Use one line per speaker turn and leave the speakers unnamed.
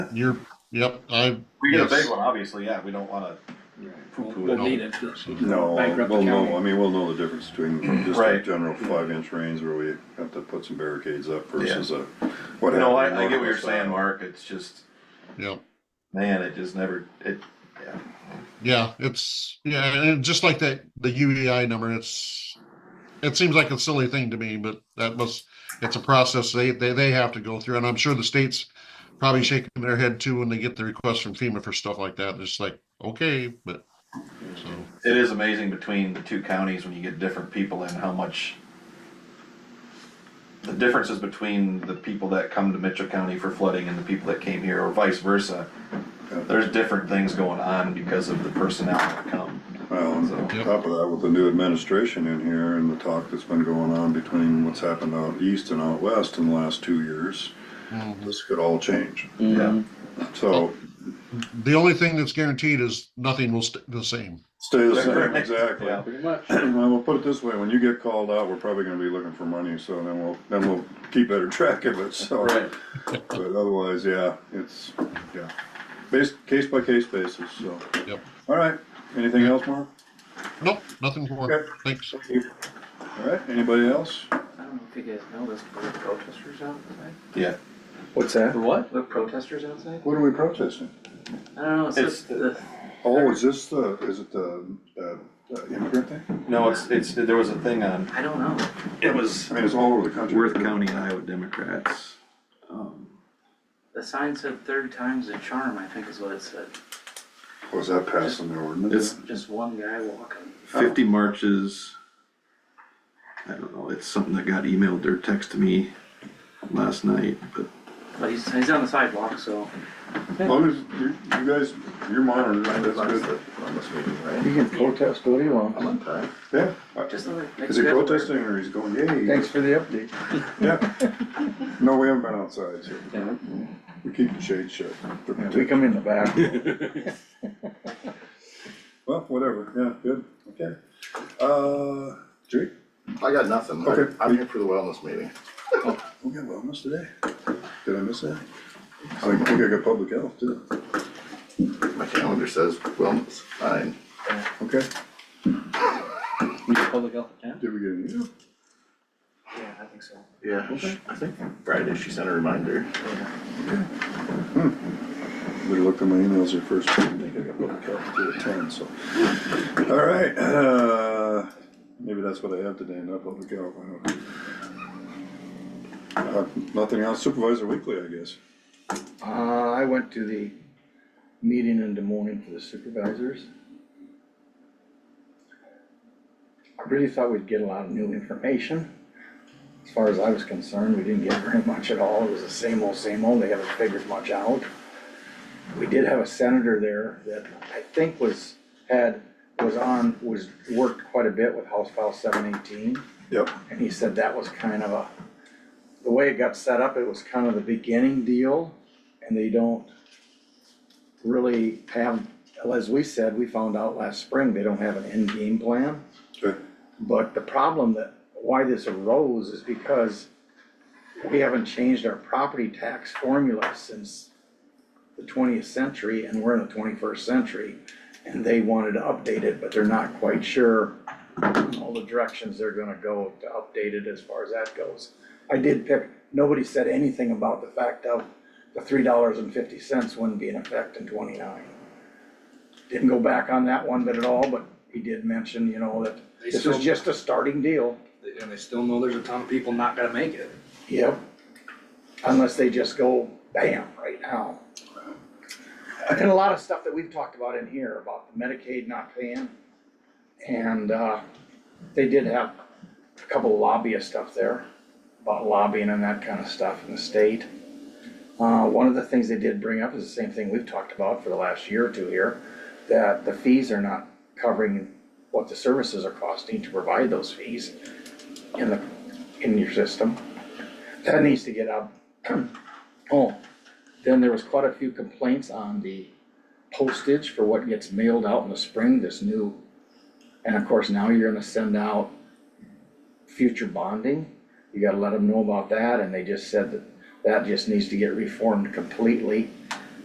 You're, yep, I,
We get a
Yes.
big one, obviously, yeah, we don't wanna poo poo
We'll
it.
need it.
No,
Bankrupt the
we'll
county.
know, I mean, we'll know the difference between just a
Right.
general five inch rains where we have to put some barricades up versus a. what
No,
happened
I,
in
I get what you're
Northwest
saying,
Iowa.
Mark, it's just,
yep,
man, it just never, it, yeah.
yeah, it's, yeah, and just like that, the UEI number, it's, it seems like a silly thing to me, but that was, it's a process they, they, they have to go through, and I'm sure the state's probably shaking their head too when they get the request from FEMA for stuff like that, it's like, okay, but, so,
It is amazing between the two counties when you get different people and how much the differences between the people that come to Mitchell County for flooding and the people that came here or vice versa. There's different things going on because of the personnel that come.
Well, and on
Yep.
top of that, with the new administration in here and the talk that's been going on between what's happened out east and out west in the last two years, this could all change.
Mm-hmm.
Yeah.
So
the only thing that's guaranteed is nothing will stay the same.
stay the same,
Right.
exactly.
Yeah.
Pretty much.
Well, we'll put it this way, when you get called out, we're probably gonna be looking for money, so then we'll, then we'll keep better track of it, so.
Right.
But otherwise, yeah, it's, yeah, based, case by case basis, so.
Yep.
All right, anything else, Mark?
Nope, nothing more,
Okay.
thanks.
All right, anybody else?
I don't know if you guys know this, but there were protesters outside.
Yeah.
What's that?
The what? There were protesters outside?
What are we protesting?
I don't know, it's
It's
just the,
Oh, is this the, is it the, uh, uh, immigrant thing?
No, it's, it's, there was a thing on,
I don't know.
it was
I mean, it's all over the country.
Worth County Iowa Democrats. Um,
The sign said third time's a charm, I think is what it said.
Was that passing the ordinance?
It's
Just one guy walking.
fifty marches. I don't know, it's something that got emailed or texted me last night, but
But he's, he's on the sidewalk, so.
As long as you, you guys, you're monitoring, that's good.
You can protest all you want.
Yeah,
Just like.
is he protesting or he's going, yay?
Thanks for the update.
Yeah. No, we haven't been outside, so
Yeah.
we keep the shade shut.
We come in the back.
Well, whatever, yeah, good, okay. Uh, Jake?
I got nothing. I-
Okay.
I'm here for the wellness meeting.
We got wellness today. Did I miss that? I think I got public health too.
My calendar says wellness, fine.
Okay,
public health account?
did we get any?
Yeah, I think so.
Yeah, I think Friday she sent a reminder.
We looked at my emails here first. I think I got public health to attend, so. All right, uh, maybe that's what I have today, not public health, I don't know. Uh, Nothing else, supervisor weekly, I guess.
Uh, I went to the meeting in Des Moines for the supervisors. I really thought we'd get a lot of new information. As far as I was concerned, we didn't get very much at all. It was the same old, same old. They haven't figured much out. We did have a senator there that I think was, had, was on, was, worked quite a bit with House File seven eighteen.
Yep.
And he said that was kind of a, the way it got set up, it was kind of the beginning deal, and they don't really have, as we said, we found out last spring, they don't have an end game plan.
Okay.
But the problem that, why this arose is because we haven't changed our property tax formula since the twentieth century, and we're in the twenty-first century. And they wanted to update it, but they're not quite sure all the directions they're gonna go to update it as far as that goes. I did pick, nobody said anything about the fact of the three dollars and fifty cents wouldn't be in effect in twenty-nine. Didn't go back on that one bit at all, but he did mention, you know, that this is just a starting deal.
And they still know there's a ton of people not gonna make it.
Yep. Unless they just go bam right now. And a lot of stuff that we've talked about in here about the Medicaid not paying. And, uh, they did have a couple lobbyist stuff there about lobbying and that kind of stuff in the state. Uh, one of the things they did bring up is the same thing we've talked about for the last year or two here, that the fees are not covering what the services are costing to provide those fees in the, in your system. That needs to get up. Oh, then there was quite a few complaints on the postage for what gets mailed out in the spring, this new. And of course, now you're gonna send out future bonding. You gotta let them know about that, and they just said that that just needs to get reformed completely.